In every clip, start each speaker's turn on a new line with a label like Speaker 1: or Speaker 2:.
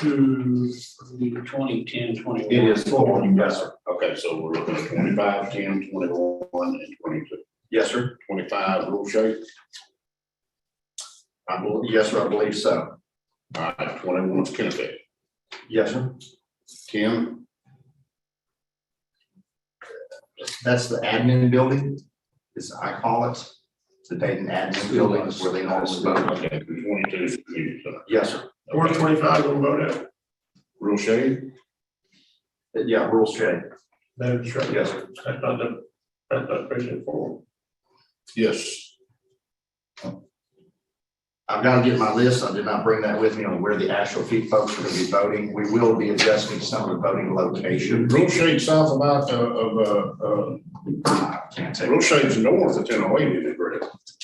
Speaker 1: to the twenty, ten, twenty.
Speaker 2: It is full, yes, sir.
Speaker 3: Okay, so we're looking at twenty-five, ten, twenty-one, and twenty-two.
Speaker 2: Yes, sir.
Speaker 3: Twenty-five, rule shape.
Speaker 2: I believe, yes, sir, I believe so.
Speaker 3: All right, twenty-one is Kennethville.
Speaker 2: Yes, sir.
Speaker 3: Ten,
Speaker 2: That's the admin building, as I call it. The Dayton admin building is where they always vote.
Speaker 3: okay, twenty-two is community center.
Speaker 2: Yes, sir.
Speaker 3: Okay,
Speaker 1: twenty-five, we'll vote out.
Speaker 3: Rule shape,
Speaker 2: Yeah, rural trade.
Speaker 1: That is right.
Speaker 2: Yes, sir.
Speaker 1: That's not the, that's not precinct four.
Speaker 3: yes,
Speaker 2: I've got to get my list. I did not bring that with me on where the actual fee folks are going to be voting. We will be adjusting some of the voting location.
Speaker 3: rule shape south of, I- of, uh, uh,
Speaker 2: I Can't say.
Speaker 3: rule shape's north of oh Tenaway, is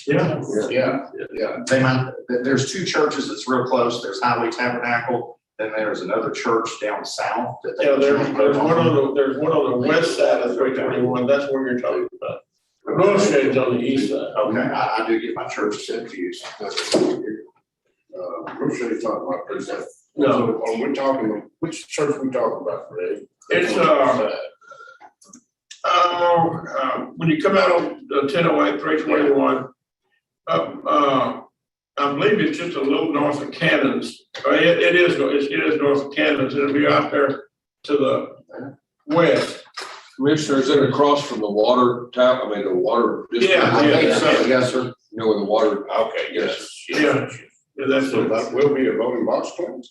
Speaker 1: Yeah.
Speaker 3: Yeah, yeah,
Speaker 2: They might, there- there's two churches that's real close. There's Highway Tabernacle, then there's another church down south that they.
Speaker 1: Yeah, there's, there's one on the, there's one on the west side of three twenty-one, that's where you're talking about. Road shade's on the east
Speaker 4: uh,
Speaker 1: side.
Speaker 2: Okay, I, I do get my church confused.
Speaker 3: uh, rule shape's talking about precinct.
Speaker 1: No,
Speaker 3: So, Are we talking, which church we talking about, Greg?
Speaker 1: It's, uh, uh, uh, when you come out on the ten oh eight, three twenty-one, uh, uh, I believe it's just a little north of Cannons, or it, it is, it's- it is north of Cannons, it'll be out there to the west.
Speaker 5: Commissioner, is it across from the water tap, I mean, the water? district?
Speaker 1: Yeah, yeah.
Speaker 2: Yes, sir.
Speaker 5: You know, where the water,
Speaker 3: Okay, yes.
Speaker 1: Yeah. Yeah, that's,
Speaker 3: So
Speaker 1: it.
Speaker 3: that will be a voting box, Clint?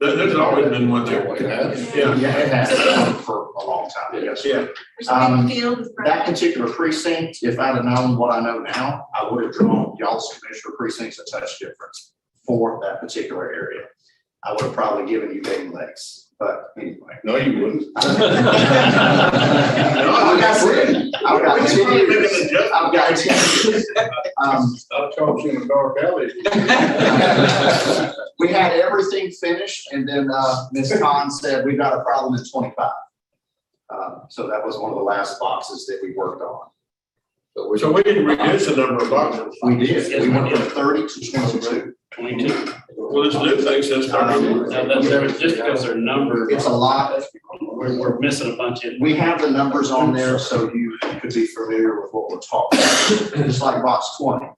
Speaker 1: there, there's always been one there.
Speaker 3: It has.
Speaker 1: Yeah.
Speaker 2: Yeah, it has been for a long time, yes. sir.
Speaker 1: Yeah,
Speaker 2: Um,
Speaker 6: Field is right.
Speaker 2: That particular precinct, if I'd have known what I know now, I would have drawn y'all's commissioner precincts a touch difference for that particular area. I would have probably given you Dayton Lakes, but anyway.
Speaker 3: No, you wouldn't.
Speaker 2: Like I said, I've got ten years. I've got ten years. Um,
Speaker 3: I caught you in a dark alley.
Speaker 2: We had everything finished and then, uh, Ms. Khan said, we've got a problem in twenty-five. Um, so that was one of the last boxes that we worked on.
Speaker 5: so we
Speaker 1: so we didn't reduce the number of boxes.
Speaker 2: We did, we went from thirty to twenty-two.
Speaker 4: Twenty-two.
Speaker 1: Well, this new thing says thirty-one.
Speaker 4: Now, that's just because their number,
Speaker 2: It's a lot.
Speaker 4: we're, we're missing a bunch in.
Speaker 2: We have the numbers on there so you could be familiar with what we're talking about. Just like box twenty,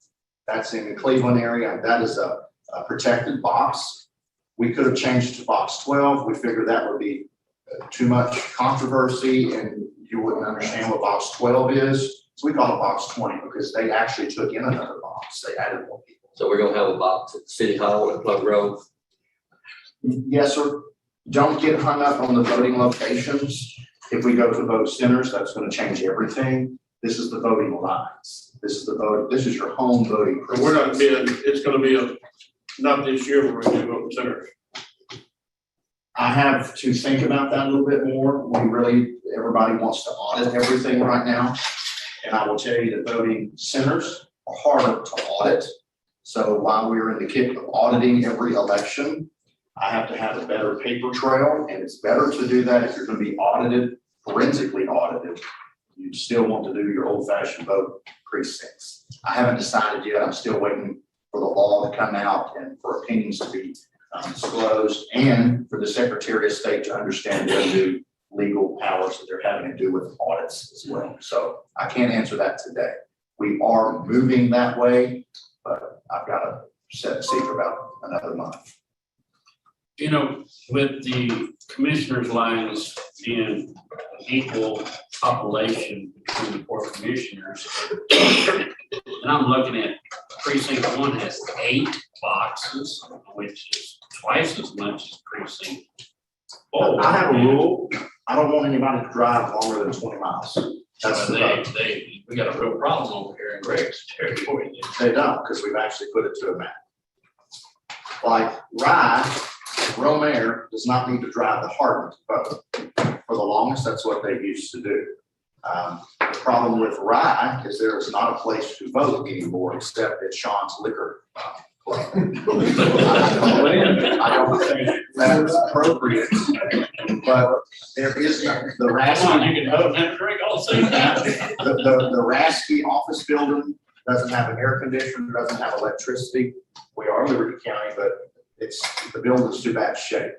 Speaker 2: that's in the Cleveland area, that is a, a protected box. We could have changed to box twelve, we figured that would be uh, too much controversy and you wouldn't understand what box twelve is. So we call it box twenty because they actually took in another box, they added more people.
Speaker 7: So we're gonna have a box at City Hall and Plug Road.
Speaker 2: Yes, sir, don't get hung up on the voting locations. If we go to vote centers, that's gonna change everything. This is the voting lines. This is the vote, this is your home voting.
Speaker 1: But we're not being, it's gonna be a, not this year, we're gonna do open centers.
Speaker 2: I have to think about that a little bit more. We really, everybody wants to audit everything right now. And I will tell you that voting centers are harder to audit. So while we're in the kick of auditing every election, I have to have a better paper trail, and it's better to do that if you're gonna be audited, forensically audited. You still want to do your old-fashioned vote precincts. I haven't decided yet. I'm still waiting for the law to come out and for opinions to be um, disclosed and for the Secretary of State to understand their new legal powers that they're having to do with audits as well. So I can't answer that today. We are moving that way, but I've got to set a seat for about another month.
Speaker 4: You know, with the commissioners' lines being equal population between the four commissioners. And I'm looking at precinct one has eight boxes, which is twice as much as precinct. four.
Speaker 2: I have a rule. I don't want anybody to drive longer than twenty miles. That's
Speaker 4: So
Speaker 2: the
Speaker 4: they,
Speaker 2: vote.
Speaker 4: they, we got a real problem over here in Greg's territory.
Speaker 2: They don't, because we've actually put it to a map. Like Rye, Romare does not need to drive the Hardin to vote. For the longest, that's what they used to do. Um, The problem with Rye is there is not a place to vote anymore except at Sean's Liquor. Club.
Speaker 4: uh,
Speaker 2: I don't think that is appropriate, but there is, no- the
Speaker 4: That's why
Speaker 2: rationale
Speaker 4: you can vote and have a drink all at the same time.
Speaker 2: the, the, the Rasky office building doesn't have an air conditioner, doesn't have electricity. We are Liberty County, but It's, the building's too bad shape.